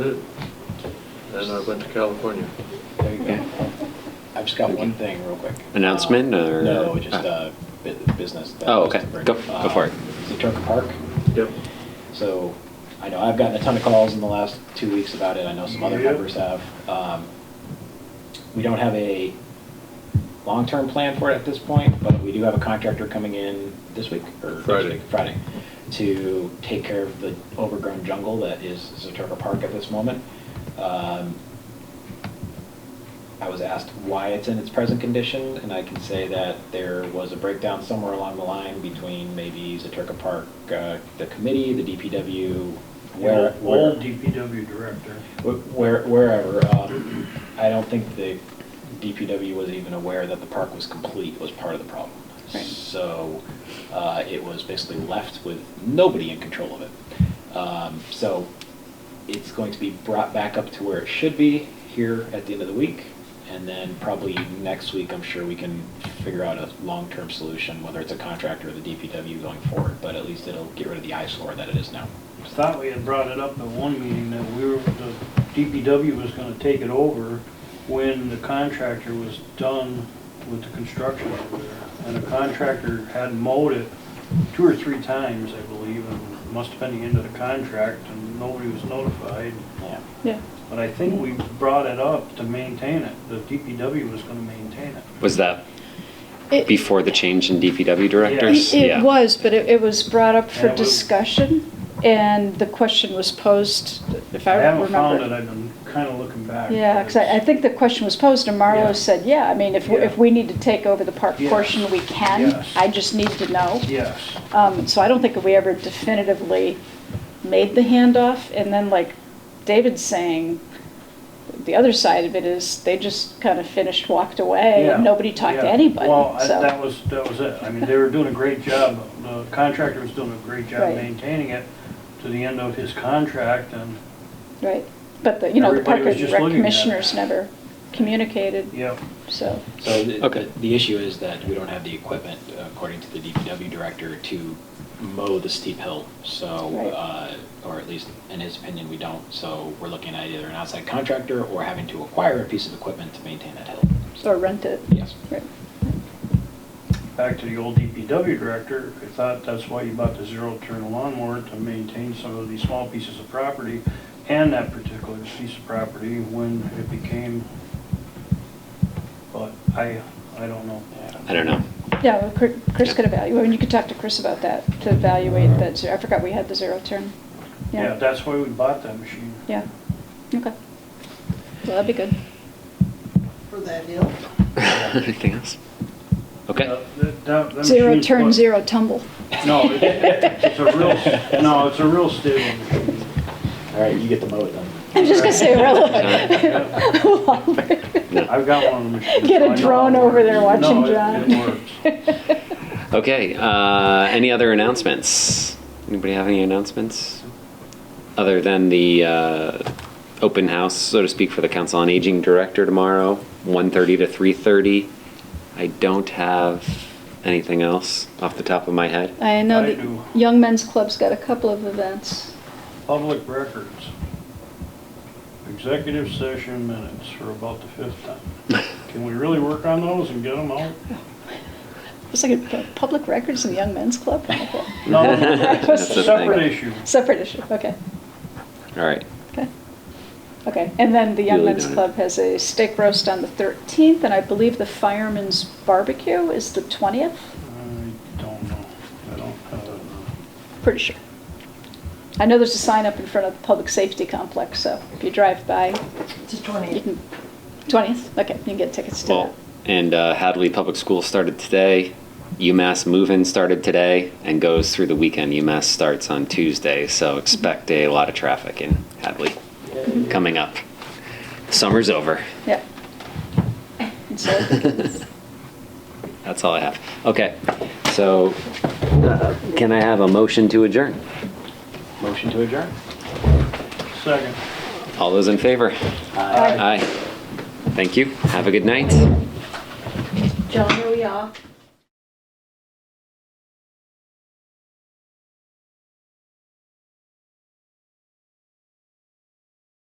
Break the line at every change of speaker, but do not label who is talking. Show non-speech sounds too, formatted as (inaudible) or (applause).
And I went to California.
There you go. I've just got one thing real quick. Um,
announcement or?
No, just
Ah.
uh, bu- business. that
Oh,
was to
okay.
bring
Go-
up.
go
Uh,
for it.
Zaturka Park.
Yep.
So I know I've gotten a ton of calls in the last two weeks about it. I know some other
Yeah.
members have. Um, We don't have a long-term plan for it at this point, but we do have a contractor coming in this week or next
Friday.
week, Friday to take care of the overgrown jungle that is Zaturka Park at this moment. Um, I was asked why it's in its present condition, and I can say that there was a breakdown somewhere along the line between maybe Zaturka Park, uh, the committee, the DPW, where,
Old
where-
old DPW director.
wh- where- wherever. um, I don't think the DPW was even aware that the park was complete was part of the problem.
Right.
So uh, it was basically left with nobody in control of it. Um, So it's going to be brought back up to where it should be here at the end of the week. And then probably next week, I'm sure we can figure out a long-term solution, whether it's a contractor or the DPW going forward. But at least it'll get rid of the eyesore that it is now.
I Thought we had brought it up at one meeting that we were, the DPW was gonna take it over when the contractor was done with the construction over there. And the contractor had mowed it two or three times, I believe, and must have been the end of the contract and nobody was notified.
Yeah.
Yeah,
But I think we brought it up to maintain it. The DPW was gonna maintain it.
Was that
It-
before the change in DPW
it
directors?
it
Yeah.
was, but it it was brought up for
Yeah, we-
discussion, and the question was posed, if I
I
remember.
haven't found it, I've been kinda looking back.
Yeah, because I I think the question was posed, and
Yeah.
Marlo said, yeah, I mean, if, we-
Yeah.
if we need to take over the park
Yes.
portion, we can.
Yes.
I just need to know.
Yes.
Um, So I don't think we ever definitively made the handoff, and then like David's saying, the other side of it is, they just kind of finished, walked away,
Yeah,
and Uh, nobody talked to
yeah.
anybody,
Well, I-
so.
that was, that was it. I mean, they were doing a great job, the contractor was doing a great job
Right.
maintaining it to the end of his contract and,
Right, but the, you know, the
Everybody
Park
was
and
just
Rec
looking at it.
commissioners never communicated,
yep.
so,
So the-
Okay.
the, the issue is that we don't have the equipment, according to the DPW director, to mow the steep hill. So,
Right.
uh, or at least in his opinion, we don't. So we're looking at either an outside contractor or having to acquire a piece of equipment to maintain that hill.
or rent it.
Yes.
Right.
Back to the old DPW director, I thought that's why you bought the zero-turn lawnmower, to maintain some of these small pieces of property and that particular piece of property when it became, but I, I don't know.
I don't know. (laughs)
Yeah, well, Chri- Chris could evaluate, and you could talk to Chris about that, to evaluate that, zero- I forgot we had the zero turn.
Yeah, that's why we bought that machine.
Yeah, okay. Well, that'd be good.
for that hill.
Anything else?
Uh,
Okay.
that- that- that
Zero
machine's
turn,
what-
zero tumble.
No, it- it's a real, (laughs) no, it's a real stadium.
All right, you get to mow it then.
(laughs) I'm just gonna say
No.
irrelevant.
I've got one. of
(laughs)
them.
Get a drone over there watching
No, it-
John.
it works.
(laughs)
Okay. Uh, any other announcements? Anybody have any announcements? Other than the uh, open house, so to speak, for the Council on Aging Director tomorrow, 1:30 to 3:30. I don't have anything else off the top of my head.
I know
I do.
the Young Men's Club's got a couple of events.
Public records. Executive session minutes for about the fifth time. Can we really work on those and get them out?
It's like a pu- public records in the Young Men's (laughs) Club. Okay.
No,
(laughs)
That's the thing.
separate issue.
Separate issue, okay,
All right.
okay. Okay, and then the Young
Duly
Men's
noted.
Club has a steak roast on the 13th, and I believe the Fireman's Barbecue is the 20th,
I don't know. I don't have it.
pretty sure. I know there's a sign up in front of the Public Safety Complex, so if you drive by,
It's a
you
20.
can, 20th, okay, you can get tickets to that.
Well, and uh, Hadley Public School started today. UMass Move-In started today and goes through the weekend. UMass starts on Tuesday, so expect a lot of traffic in Hadley coming up. Summer's over.
(laughs)
Yeah. And so I think it's-
That's all I have. Okay, so uh, can I have a motion to adjourn?
Motion to adjourn?
Second.
All those in favor?
Aye.
Aye. Thank you. Have a good night.
John, where we are?